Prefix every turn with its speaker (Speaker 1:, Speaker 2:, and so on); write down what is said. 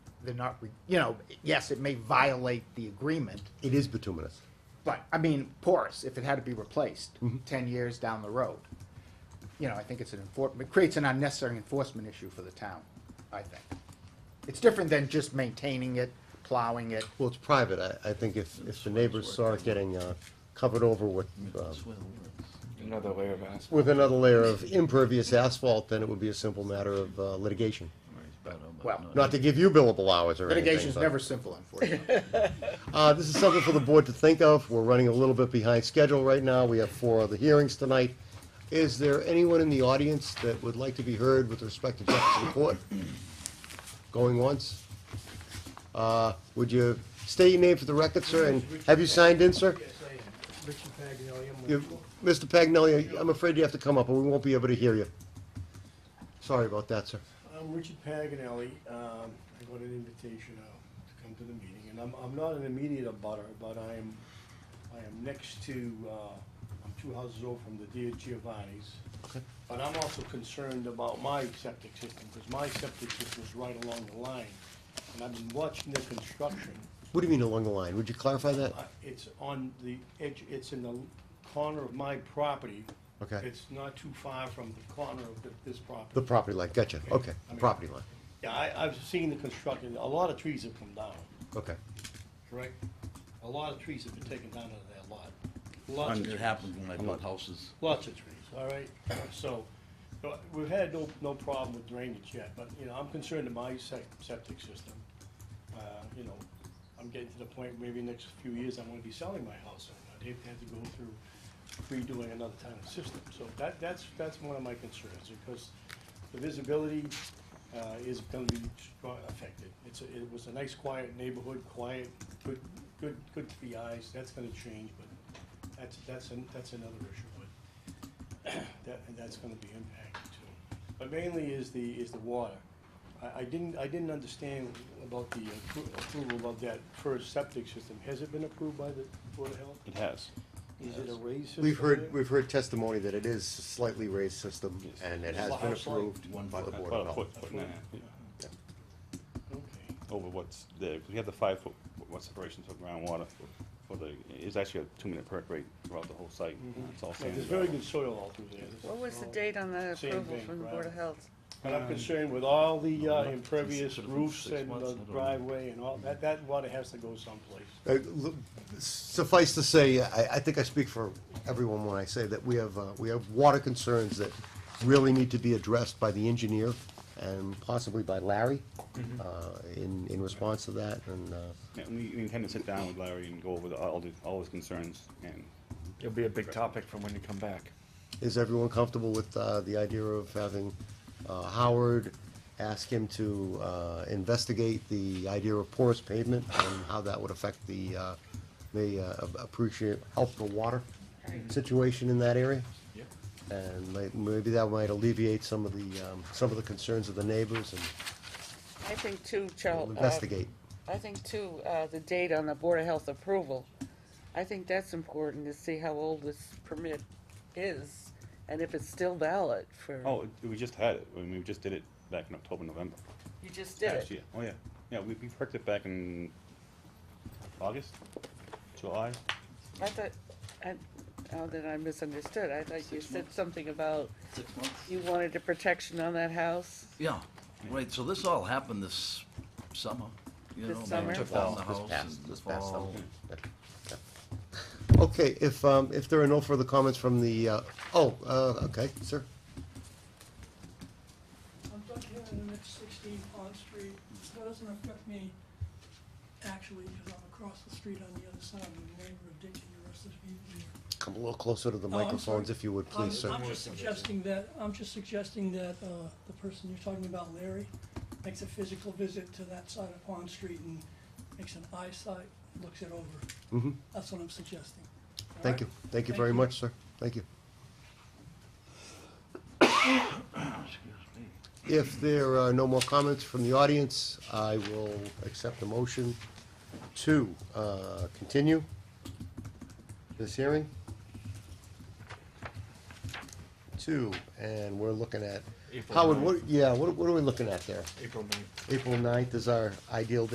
Speaker 1: they're not, re- you know, yes, it may violate the agreement,
Speaker 2: It is bituminous.
Speaker 1: but, I mean, porous, if it had to be replaced
Speaker 2: Mm-hmm.
Speaker 1: ten years down the road. You know, I think it's an enforcement, it creates an unnecessary enforcement issue for the town, I think. It's different than just maintaining it, plowing it.
Speaker 2: Well, it's private. I, I think if, if the neighbors saw it getting, uh, covered over with, um,
Speaker 3: Another layer of asphalt.
Speaker 2: with another layer of impervious asphalt, then it would be a simple matter of uh, litigation.
Speaker 1: Well,
Speaker 2: Not to give you billable hours or anything.
Speaker 1: litigation's
Speaker 2: but-
Speaker 1: never simple, unfortunately.
Speaker 2: Uh, this is something for the board to think of. We're running a little bit behind schedule right now. We have four other hearings tonight. Is there anyone in the audience that would like to be heard with respect to Jefferson Court? Going once? Uh, would you state your name for the record, sir, and have you signed in, sir?
Speaker 4: Yes, I am. Richard Paganelli, I'm
Speaker 2: You-
Speaker 4: with,
Speaker 2: Mr. Pagnelli, I'm afraid you have to come up, or we won't be able to hear you. Sorry about that, sir.
Speaker 4: I'm Richard Paganelli. Um, I got an invitation out to come to the meeting, and I'm, I'm not an immediate abutter, but I am, I am next to, uh, I'm two houses over from the Dia Giovanni's. But I'm also concerned about my septic system, because my septic system is right along the line. And I've been watching the construction.
Speaker 2: What do you mean along the line? Would you clarify that?
Speaker 4: I- It's on the edge, it's in the corner of my property.
Speaker 2: Okay.
Speaker 4: It's not too far from the corner of th- this property.
Speaker 2: The property line, gotcha, okay, the property line,
Speaker 4: Yeah, I, I've seen the construction, a lot of trees have come down,
Speaker 2: okay.
Speaker 4: correct? A lot of trees have been taken down out of that lot.
Speaker 5: I
Speaker 4: Lots of
Speaker 5: mean, it
Speaker 4: trees,
Speaker 5: happens when I build houses.
Speaker 4: lots of trees, all right? So, no, we've had no, no problem with drainage yet, but, you know, I'm concerned about my sec- septic system. Uh, you know, I'm getting to the point, maybe next few years, I'm gonna be selling my house, and I'd hate to have to go through redoing another kind of system. So that, that's, that's one of my concerns, because the visibility uh, is gonna be stro- affected. It's, a- it was a nice quiet neighborhood, quiet, good, good, good to the eyes, that's gonna change, but that's, that's, an- that's another issue, but that, and that's gonna be impacted too. But mainly is the, is the water. I, I didn't, I didn't understand about the appro- approval of that first septic system. Has it been approved by the Board of Health?
Speaker 3: It has.
Speaker 4: Is it a raised system?
Speaker 2: We've
Speaker 4: there?
Speaker 2: heard, we've heard testimony that it is a slightly raised system, and it has been
Speaker 4: Yes.
Speaker 2: approved by the Board
Speaker 3: About a
Speaker 2: of Health.
Speaker 3: foot, foot and a half yeah,
Speaker 4: Okay.
Speaker 3: over what's there. 'Cause We have the five foot, what separations for groundwater for the, it's actually a two minute perk rate throughout the whole site. It's all
Speaker 4: Mm-hmm. Yeah,
Speaker 3: sand.
Speaker 4: There's very good soil all through there.
Speaker 6: What was the date on that
Speaker 4: Same
Speaker 6: approval
Speaker 4: thing,
Speaker 6: from the Board of
Speaker 4: right.
Speaker 6: Health?
Speaker 4: And I'm concerned with all the uh, impervious
Speaker 5: Six months,
Speaker 4: roofs
Speaker 5: six
Speaker 4: and
Speaker 5: months, I
Speaker 4: the
Speaker 5: don't know.
Speaker 4: driveway and all, that, that water has to go someplace.
Speaker 2: Uh, l- Suffice to say, I, I think I speak for everyone when I say that we have, uh, we have water concerns that really need to be addressed by the engineer and possibly by Larry, uh, in, in response to that, and, uh,
Speaker 3: Yeah, and we we intend to sit down with Larry and go over the- all the, all his concerns and
Speaker 7: It'll be a big topic from when you come back.
Speaker 2: is everyone comfortable with, uh, the idea of having, uh, Howard ask him to, uh, investigate the idea of porous pavement and how that would affect the, uh, the, uh, appreciate, help the water situation in that area?
Speaker 7: Yep.
Speaker 2: And may- maybe that might alleviate some of the, um, some of the concerns of the neighbors and
Speaker 6: I think too,
Speaker 8: uh,
Speaker 6: Charles.
Speaker 2: we'll investigate.
Speaker 6: I think too, uh, the date on the Board of Health approval. I think that's important to see how old this permit is and if it's still valid for.
Speaker 3: Oh, it- we just had it. I mean, we just did it back in October, November.
Speaker 6: You just did
Speaker 3: last
Speaker 6: it.
Speaker 3: year. Oh, yeah. Yeah, we, we perked it back in August, July.
Speaker 6: I thought, I, oh, then I misunderstood. I thought you said something about
Speaker 5: Six months?
Speaker 6: you wanted a protection on that house.
Speaker 5: Yeah, right, so this all happened this summer, you know.
Speaker 6: This
Speaker 5: they
Speaker 6: summer?
Speaker 5: Took down the house in the fall.
Speaker 2: Okay, if, um, if there are no further comments from the, uh, oh, uh, okay, sir.
Speaker 8: I'm Doug Hannon, and it's sixteen Pond Street. That doesn't affect me actually, because I'm across the street on the other side, I'm a neighbor of Dick and the rest of the people here.
Speaker 2: Come a little closer to the
Speaker 8: Oh, I'm
Speaker 2: microphones
Speaker 8: sorry. Uh,
Speaker 2: if you would, please,
Speaker 8: I'm-
Speaker 2: sir.
Speaker 8: I'm just suggesting that, I'm just suggesting that, uh, the person you're talking about, Larry, makes a physical visit to that side of Pond Street and makes an eyesight, looks it over.
Speaker 2: Mhm.
Speaker 8: That's what I'm suggesting. All
Speaker 2: Thank you,
Speaker 8: right?
Speaker 2: thank you very
Speaker 8: Thank you.
Speaker 2: much, sir, thank you.
Speaker 5: Excuse me.
Speaker 2: If there are no more comments from the audience, I will accept the motion to, uh, continue this hearing. Two, and we're looking at
Speaker 7: April
Speaker 2: Howard,
Speaker 7: ninth.
Speaker 2: what, yeah, what, what are we looking at there?
Speaker 7: April ninth.
Speaker 2: April ninth is our ideal